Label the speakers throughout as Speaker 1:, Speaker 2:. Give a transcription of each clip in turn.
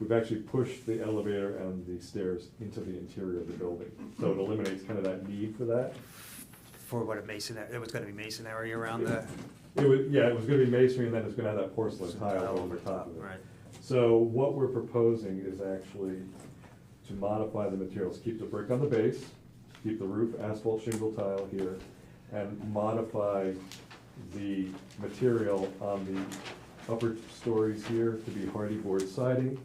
Speaker 1: We've actually pushed the elevator and the stairs into the interior of the building, so it eliminates kind of that need for that.
Speaker 2: For what a mason, there was gonna be masonry around the.
Speaker 1: It was, yeah, it was gonna be masonry, and then it's gonna have that porcelain
Speaker 2: some
Speaker 1: tile over top of it.
Speaker 2: uh, Right,
Speaker 1: So what we're proposing is actually to modify the materials, keep the brick on the base, keep the roof asphalt shingle tile here, and modify the material on the upper stories here to be hardy board siding.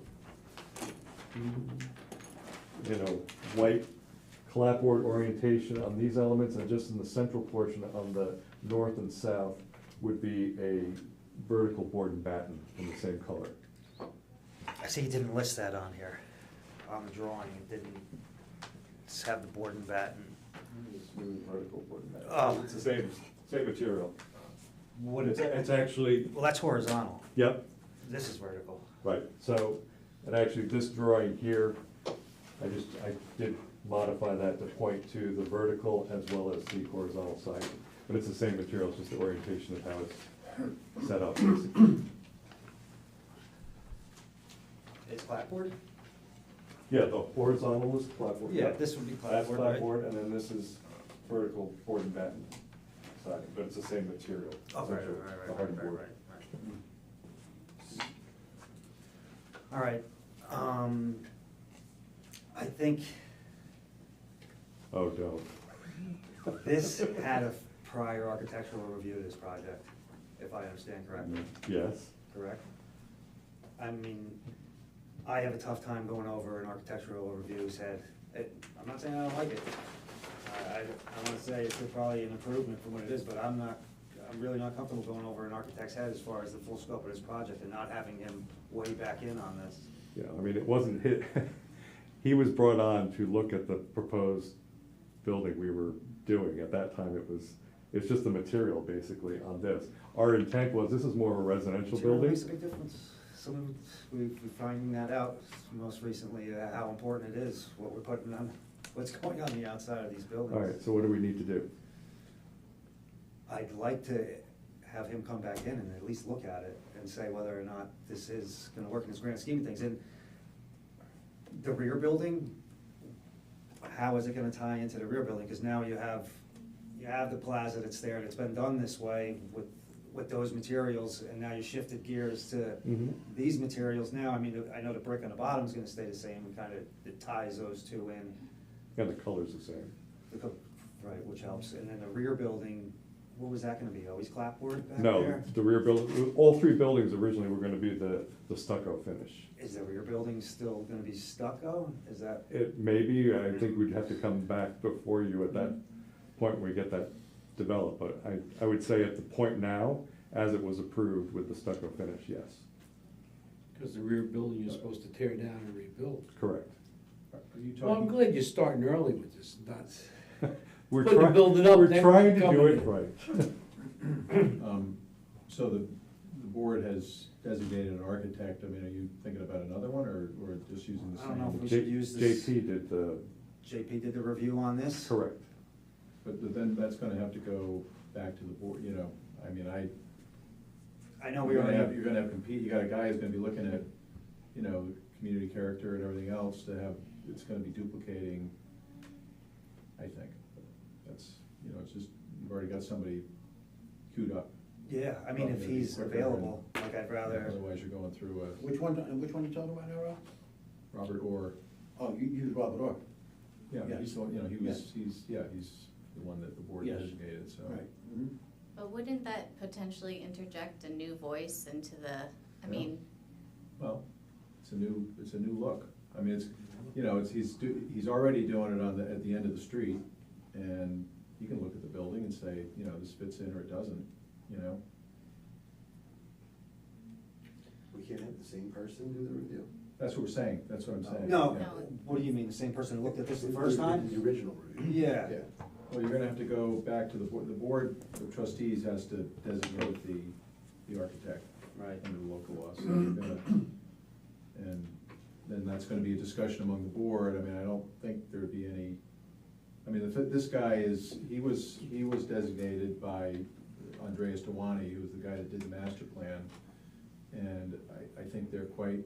Speaker 1: You know, white clapboard orientation on these elements, and just in the central portion on the north and south would be a vertical board and batten in the same color.
Speaker 2: I see you didn't list that on here, on the drawing, it didn't s- have the board and batten. Oh.
Speaker 1: It's the same, same material.
Speaker 2: What
Speaker 1: It's,
Speaker 2: is it?
Speaker 1: it's actually,
Speaker 2: Well, that's horizontal,
Speaker 1: yep,
Speaker 2: this is vertical.
Speaker 1: right, so, and actually this drawing here, I just, I did modify that to point to the vertical as well as the horizontal side. But it's the same material, it's just the orientation of how it's set up. basically.
Speaker 2: Is clapboard?
Speaker 1: Yeah, the horizontal is clapboard.
Speaker 2: Yeah, this would be
Speaker 1: That's
Speaker 2: clapboard, right?
Speaker 1: clapboard, and then this is vertical board and batten siding, but it's the same material.
Speaker 2: Oh, right, right,
Speaker 1: essentially,
Speaker 2: right,
Speaker 1: the
Speaker 2: right,
Speaker 1: hardy
Speaker 2: right,
Speaker 1: board.
Speaker 2: right, right. All right, um, I think
Speaker 1: Oh, no.
Speaker 2: this had a prior architectural review of this project, if I understand correctly,
Speaker 1: Yes.
Speaker 2: correct? I mean, I have a tough time going over an architectural review's head, It- I'm not saying I don't like it. I, I, I wanna say it's probably an improvement from what it is, but I'm not, I'm really not comfortable going over an architect's head as far as the full scope of this project and not having him weigh back in on this.
Speaker 1: Yeah, I mean, it wasn't hit, he was brought on to look at the proposed building we were doing. At that time, it was, it's just the material basically on this. Our intent was, this is more of a residential
Speaker 2: Material
Speaker 1: building.
Speaker 2: Makes a big difference. Some of, it's- we've been finding that out most recently, uh, how important it is, what we're putting on, what's going on the outside of these buildings.
Speaker 1: All right, so what do we need to do?
Speaker 2: I'd like to have him come back in and at least look at it and say whether or not this is gonna work in his grand scheme of things. And the rear building, how is it gonna tie into the rear building? Because now you have, you have the plaza that's there and it's been done this way with, with those materials and now you shifted gears to
Speaker 1: Mhm.
Speaker 2: these materials now. I mean, I know the brick on the bottom is gonna stay the same, kind of, it ties those two in.
Speaker 1: And the color's the same.
Speaker 2: The co- Right, which helps, and then the rear building, what was that gonna be, always clapboard back
Speaker 1: No,
Speaker 2: there?
Speaker 1: the rear building, all three buildings originally were gonna be the, the stucco finish.
Speaker 2: Is the rear building still gonna be stucco, is that,
Speaker 1: It maybe, I think we'd have to come back before you at that
Speaker 2: Mm-hmm.
Speaker 1: point when we get that developed, but I, I would say at the point now, as it was approved with the stucco finish, yes,
Speaker 3: Because the rear building you're supposed to tear down and rebuild.
Speaker 1: correct.
Speaker 4: Are you
Speaker 3: Well, I'm
Speaker 4: talking,
Speaker 3: glad you're starting early with this, not,
Speaker 1: We're
Speaker 3: Put the
Speaker 1: trying,
Speaker 3: building up,
Speaker 1: we're
Speaker 3: then
Speaker 1: trying to
Speaker 3: come
Speaker 1: do
Speaker 3: in.
Speaker 1: it right.
Speaker 4: um, so the, the board has designated an architect, I mean, are you thinking about another one, or, or just using the
Speaker 2: I don't know.
Speaker 4: same?
Speaker 2: We
Speaker 1: J-
Speaker 2: should use this-
Speaker 1: JP did the,
Speaker 2: JP did the review on this?
Speaker 1: correct,
Speaker 4: But but then that's gonna have to go back to the board, you know, I mean, I.
Speaker 2: I know we
Speaker 4: You're gonna have,
Speaker 2: already,
Speaker 4: you're gonna have compete, you got a guy who's gonna be looking at, you know, community character and everything else to have, it's gonna be duplicating, I think. That's, you know, it's just, you've already got somebody queued up.
Speaker 2: yeah, I mean, if he's available, like, I'd rather,
Speaker 4: Otherwise, you're going through a.
Speaker 5: Which one, and which one you talking about now, Rob?
Speaker 4: Robert Orr.
Speaker 5: Oh, you use Robert Orr.
Speaker 4: Yeah,
Speaker 5: Yeah.
Speaker 4: he's, the one- you know, he was,
Speaker 5: Yes.
Speaker 4: he's, yeah, he's the one that the board
Speaker 5: Yes.
Speaker 4: designated, so.
Speaker 5: Right.
Speaker 2: Mm-hmm.
Speaker 5: Mhm.
Speaker 6: But wouldn't that potentially interject a new voice into the, I
Speaker 4: Yeah.
Speaker 6: mean,
Speaker 4: Well, it's a new, it's a new look. I mean, it's, you know, it's, he's, do- he's already doing it on the, at the end of the street, and you can look at the building and say, you know, this fits in or it doesn't, you know?
Speaker 5: We can't have the same person do the review.
Speaker 4: That's what we're saying, that's what I'm saying.
Speaker 2: no,
Speaker 4: yeah.
Speaker 6: No.
Speaker 2: what do you mean, the same person who looked at this the first time?
Speaker 5: The original review.
Speaker 2: Yeah.
Speaker 4: Well, you're gonna have to go back to the board, the board of trustees has to designate the, the architect.
Speaker 2: Right.
Speaker 4: Under the local law, so you're gonna, and then that's gonna be a discussion among the board, I mean, I don't think there'd be any, I mean, if this guy is, he was, he was designated by Andreas Dewani, who was the guy that did the master plan, and I, I think they're quite